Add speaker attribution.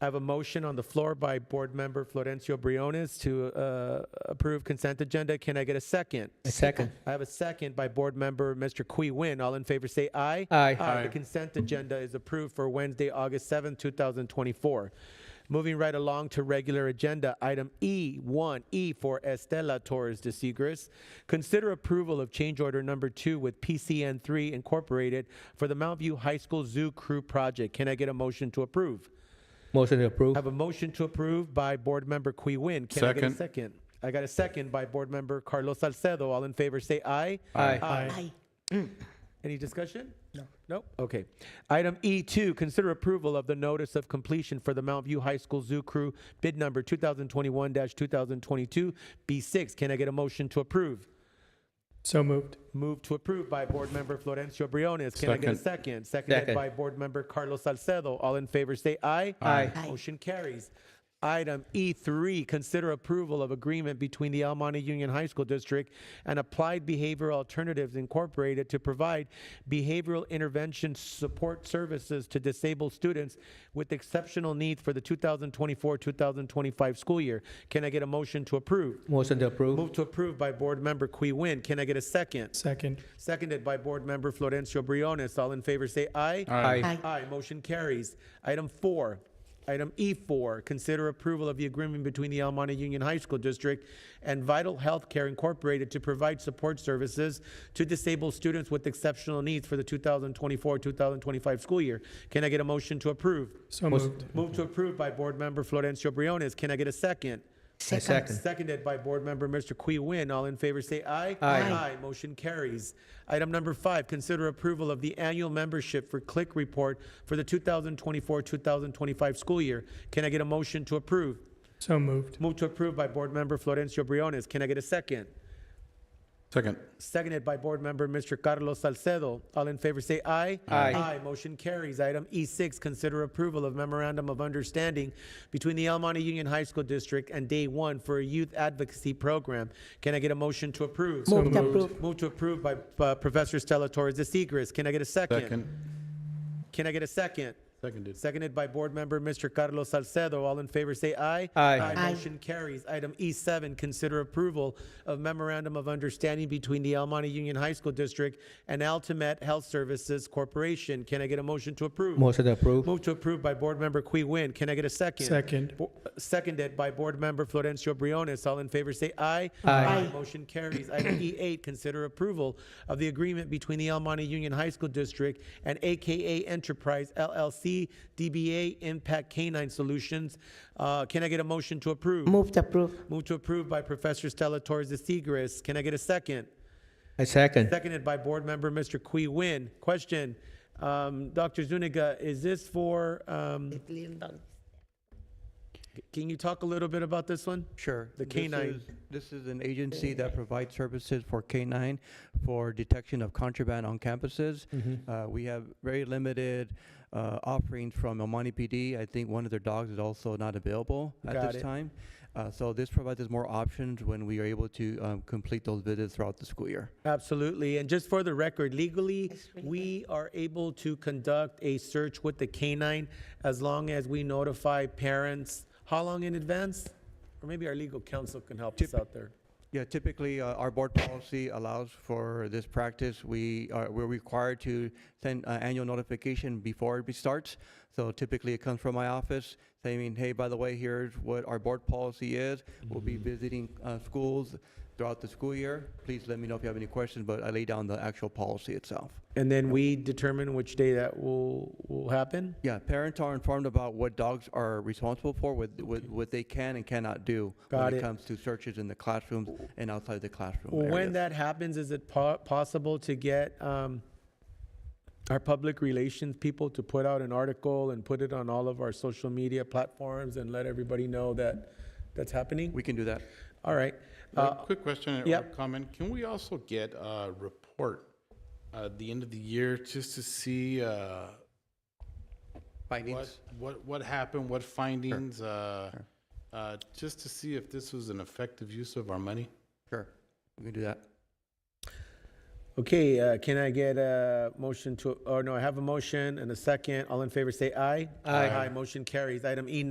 Speaker 1: I have a motion on the floor by Board Member Florencio Briones to uh, approve consent agenda. Can I get a second?
Speaker 2: Second.
Speaker 1: I have a second by Board Member Mr. Qui Win. All in favor, say aye.
Speaker 2: Aye.
Speaker 1: Aye. The consent agenda is approved for Wednesday, August seventh, two 2024. Moving right along to regular agenda, item E1, E for Estela Torres de Segres. Consider approval of change order number two with PCN3 Incorporated for the Mount View High School Zoo Crew Project. Can I get a motion to approve?
Speaker 2: Motion to
Speaker 1: I
Speaker 2: approve.
Speaker 1: have a motion to approve by Board Member Qui Win. Can I get a
Speaker 3: Second.
Speaker 1: second? I got a second by Board Member Carlos Salcedo. All in favor, say aye.
Speaker 2: Aye.
Speaker 1: Aye. Any discussion? No. Nope. Okay. Item E2, consider approval of the notice of completion for the Mount View High School Zoo Crew bid number 2021-2022 B6. Can I get a motion to approve?
Speaker 4: So moved.
Speaker 1: Move to approve by Board Member Florencio Briones. Can I get a second? Seconded
Speaker 2: Second.
Speaker 1: by Board Member Carlos Salcedo. All in favor, say aye.
Speaker 2: Aye.
Speaker 1: Motion carries. Item E3, consider approval of agreement between the El Monte Union High School District and Applied Behavioral Alternatives Incorporated to provide behavioral intervention support services to disabled students with exceptional needs for the 2024-2025 school year. Can I get a motion to approve?
Speaker 2: Motion to approve.
Speaker 1: Move to approve by Board Member Qui Win. Can I get a second?
Speaker 4: Second.
Speaker 1: Seconded by Board Member Florencio Briones. All in favor, say aye.
Speaker 2: Aye. Aye.
Speaker 1: Aye, motion carries. Item four, item E4, consider approval of the agreement between the El Monte Union High School District and Vital Healthcare Incorporated to provide support services to disabled students with exceptional needs for the 2024-2025 school year. Can I get a motion to approve?
Speaker 4: So moved.
Speaker 1: Move to approve by Board Member Florencio Briones. Can I get a second?
Speaker 2: I Second.
Speaker 1: Seconded by Board Member Mr. Qui Win. All in favor say aye.
Speaker 2: Aye.
Speaker 1: Aye. Motion carries. Item number five, consider approval of the annual membership for Click Report for the 2024-2025 school year. Can I get a motion to approve?
Speaker 4: So moved.
Speaker 1: Move to approve by Board Member Florencio Briones. Can I get a second?
Speaker 3: Second.
Speaker 1: Seconded by Board Member Mr. Carlos Salcedo. All in favor say aye.
Speaker 2: Aye.
Speaker 1: Aye. Motion carries. Item E6, consider approval of memorandum of understanding between the El Monte Union High School District and Day One for a youth advocacy program. Can I get a motion to approve?
Speaker 4: Move to moved.
Speaker 1: Move to approve by uh, Professor Stella Torres de Seigres. Can I get a second?
Speaker 3: Second.
Speaker 1: Can I get a second?
Speaker 3: Seconded.
Speaker 1: Seconded by Board Member Mr. Carlos Salcedo. All in favor, say aye.
Speaker 2: Aye.
Speaker 1: Aye. Motion carries. Item E7, consider approval of memorandum of understanding between the El Monte Union High School District and Altimet Health Services Corporation. Can I get a motion to approve?
Speaker 2: Motion to approve.
Speaker 1: Move to approve by Board Member Qui Win. Can I get a second?
Speaker 4: Second.
Speaker 1: Bo- Seconded by Board Member Florencio Briones. All in favor, say aye.
Speaker 2: Aye.
Speaker 1: Motion carries. Item E8, consider approval of the agreement between the El Monte Union High School District and AKA Enterprise LLC DBA Impact Canine Solutions. Uh, Can I get a motion to approve?
Speaker 5: Move to approve.
Speaker 1: Move to approve by Professor Stella Torres de Seigres. Can I get a second?
Speaker 2: I second.
Speaker 1: Seconded by Board Member Mr. Qui Win. Question, um, Dr. Zuniga, is this for, um, can you talk a little bit about this one?
Speaker 6: Sure.
Speaker 1: The
Speaker 6: This
Speaker 1: canine.
Speaker 6: is- This is an agency that provides services for canine for detection of contraband on campuses.
Speaker 1: Mm-hmm.
Speaker 6: Uh, We have very limited uh, offerings from El Monte PD. I think one of their dogs is also not available
Speaker 1: Got
Speaker 6: at
Speaker 1: it.
Speaker 6: this time. Uh, So this provides us more options when we are able to um, complete those visits throughout the school year.
Speaker 1: Absolutely. And just for the record, legally, we are able to conduct a search with the canine as long as we notify parents. How long in advance? Or maybe our legal counsel can help us out there.
Speaker 6: Yeah, typically, uh, our board policy allows for this practice. We are, we're required to send uh, annual notification before it starts. So typically, it comes from my office saying, hey, by the way, here's what our board policy is. We'll
Speaker 1: Mm-hmm.
Speaker 6: be visiting uh, schools throughout the school year. Please let me know if you have any questions, but I lay down the actual policy itself.
Speaker 1: And then we determine which day that will, will happen?
Speaker 6: Yeah, parents are informed about what dogs are responsible for, what, what what they can and cannot do
Speaker 1: Got
Speaker 6: when
Speaker 1: it.
Speaker 6: it comes to searches in the classrooms and outside the classroom areas.
Speaker 1: When that happens, is it po- possible to get um, our public relations people to put out an article and put it on all of our social media platforms and let everybody know that that's happening?
Speaker 6: We can do that.
Speaker 1: All right.
Speaker 3: Uh,
Speaker 1: Uh,
Speaker 3: Quick question or
Speaker 1: yep.
Speaker 3: comment. Can we also get a report at the end of the year just to see uh, what,
Speaker 6: Findings?
Speaker 3: what, what happened, what findings? uh, uh, Just to see if this was an effective use of our money?
Speaker 6: Sure, we can do that.
Speaker 1: Okay, uh, can I get a oh, motion to, or no, I have a motion and a second. All in favor, say aye.
Speaker 2: Aye.
Speaker 1: Aye, motion carries. Item E